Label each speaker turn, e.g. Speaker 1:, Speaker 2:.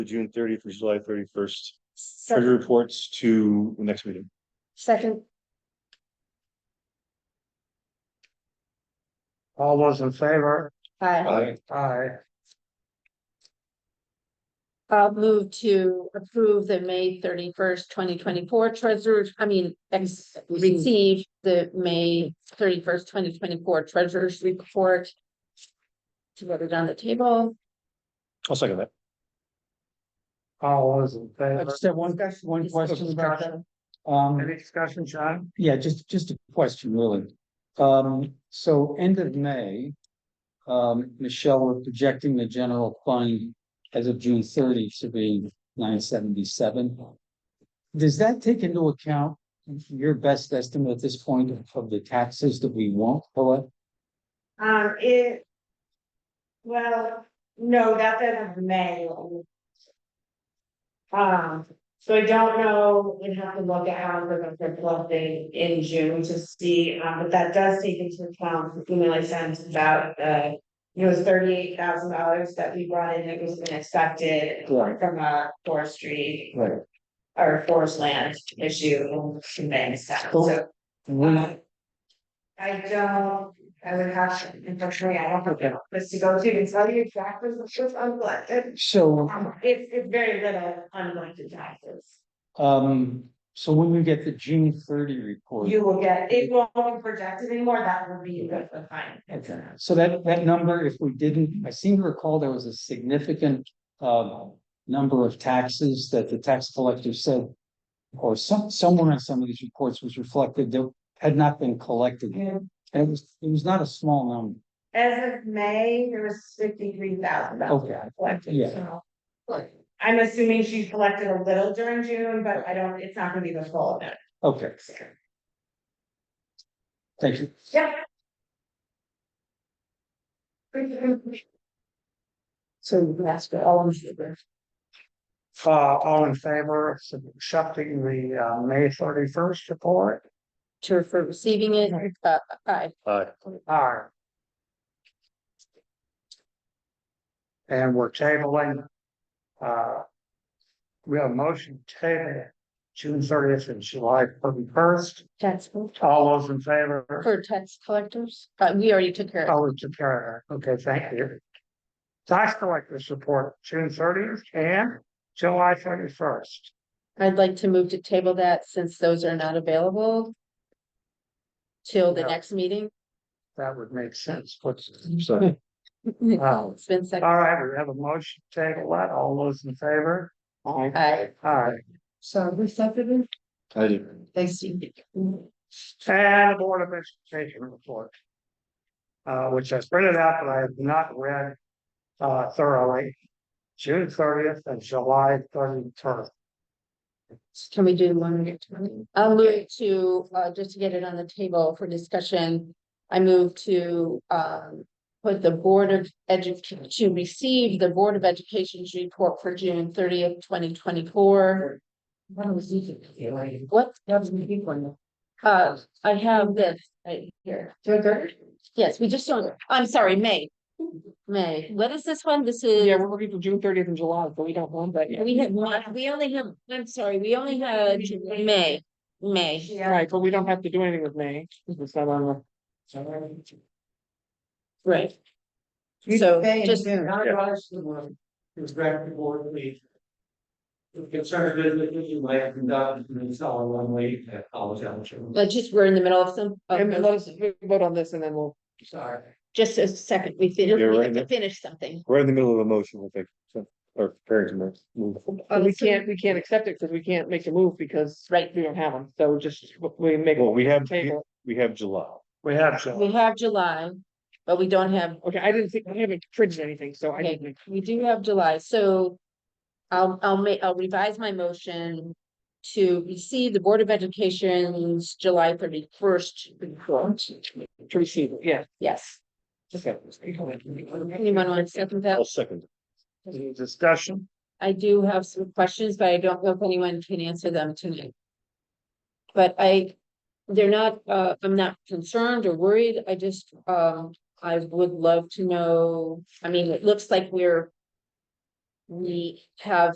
Speaker 1: June thirtieth, or July thirty-first, treasury
Speaker 2: Second,
Speaker 1: reports to the next meeting.
Speaker 2: second,
Speaker 3: All those in favor?
Speaker 2: uh,
Speaker 3: Aye.
Speaker 2: I'll move to approve the May thirty-first, twenty twenty-four treasurer's, I mean, ex- receive the May thirty-first, twenty twenty-four treasurer's report. To put it on the table,
Speaker 1: I'll second that.
Speaker 3: All those in
Speaker 4: I
Speaker 3: favor?
Speaker 4: just have one, one question about that. Um,
Speaker 3: Any discussion, John?
Speaker 4: yeah, just, just a question really. Um, so end of May. Um, Michelle, we're projecting the general fund as of June thirty to be nine seventy-seven. Does that take into account your best estimate at this point of the taxes that we won't collect?
Speaker 5: Um, it. Well, no, that's as of May. Um, so I don't know, we'd have to look at how we're gonna put clothing in June to see, um, but that does take into account, the email I sent about, uh. You know, thirty-eight thousand dollars that we brought in that was unexpected
Speaker 4: Right.
Speaker 5: from a forestry
Speaker 4: Right.
Speaker 5: or forest land issue in May, so.
Speaker 4: Cool. We're not,
Speaker 5: I don't, I would have, to- unfortunately, I don't have the office to go to and tell you exactly what's uncollected.
Speaker 4: so,
Speaker 5: Um, It's, it's very little uncollected taxes.
Speaker 4: um, so when we get the June thirty report.
Speaker 5: You will get, it won't be projected anymore, that will be the the final.
Speaker 4: Okay, so that, that number, if we didn't, I seem to recall there was a significant, um, number of taxes that the tax collector said. Or some, somewhere in some of these reports was reflected that had not been collected, and it was, it was not a small number.
Speaker 5: As of May, there was fifty-three thousand dollars
Speaker 4: Okay,
Speaker 5: collected,
Speaker 4: Yeah.
Speaker 5: so. I'm assuming she collected a little during June, but I don't, it's not gonna be the full amount.
Speaker 4: okay, thank you.
Speaker 2: so that's for all in favor.
Speaker 3: Uh, all in favor of accepting the, uh, May thirty-first report?
Speaker 2: to for receiving it, uh, aye.
Speaker 1: Aye.
Speaker 3: Aye. And we're tabling, uh, we have a motion table, June thirtieth and July thirty-first.
Speaker 2: Tax
Speaker 3: All those in favor?
Speaker 2: for tax collectors, but we already took care of.
Speaker 3: Oh, it's a carrier. Okay, thank you. Tax collector's report, June thirtieth and July thirty-first.
Speaker 2: I'd like to move to table that since those are not available. Till the
Speaker 3: Yeah.
Speaker 2: next meeting.
Speaker 3: That would make sense. What's,
Speaker 1: Second.
Speaker 3: Wow.
Speaker 2: It's been second.
Speaker 3: all right, we have a motion to table that. All those in favor? Aye.
Speaker 2: Aye.
Speaker 3: All right,
Speaker 2: So we accepted it.
Speaker 1: I do.
Speaker 2: Thanks, Steve.
Speaker 3: and the Board of Education report. Uh, which I printed out, but I have not read, uh, thoroughly. June thirtieth and July thirty-first.
Speaker 2: Can we do one at a time? I'll move to, uh, just to get it on the table for discussion. I move to, um, put the Board of Education, to receive the Board of Education's report for June thirtieth, twenty twenty-four. What was it? What? That was the big one. Uh, I have this right here. Yes, we just don't, I'm sorry, May. May, what is this one? This is.
Speaker 3: we're looking for June thirtieth and July, but we don't want that
Speaker 2: We had one, we only have, I'm sorry, we only had May, May.
Speaker 5: Yeah,
Speaker 3: but we don't have to do anything with May, it's not on the.
Speaker 2: Right. So
Speaker 3: May and
Speaker 2: just,
Speaker 3: June. Not advice to the board, is back to board meeting. The concern is that you might have conducted and sell a one way at college elementary.
Speaker 2: let's just, we're in the middle of some, of
Speaker 6: And let us vote on this and then we'll,
Speaker 3: Sorry.
Speaker 2: just a second, we fin-
Speaker 1: You're
Speaker 2: we
Speaker 1: right,
Speaker 2: have to
Speaker 1: yeah.
Speaker 2: finish something.
Speaker 1: We're in the middle of a motion, I think, so- or preparing to move- move.
Speaker 3: Uh,
Speaker 6: we can't, we can't accept it because we can't make a move because.
Speaker 2: Right.
Speaker 6: We don't have them, so just, we make.
Speaker 1: Well, we have,
Speaker 6: Table,
Speaker 1: we have July.
Speaker 3: We have to.
Speaker 2: We have July, but we don't have,
Speaker 6: okay, I didn't think, I haven't printed anything, so I
Speaker 2: Okay.
Speaker 6: didn't.
Speaker 2: we do have July, so. I'll, I'll make, I'll revise my motion to receive the Board of Education's July thirty first report.
Speaker 6: To receive, it, yeah.
Speaker 2: Yes,
Speaker 6: Okay.
Speaker 2: anyone want to second that?
Speaker 1: I'll second.
Speaker 3: Any discussion?
Speaker 2: I do have some questions, but I don't know if anyone can answer them tonight. But I, they're not, uh, I'm not concerned or worried, I just, um, I would love to know, I mean, it looks like we're. We have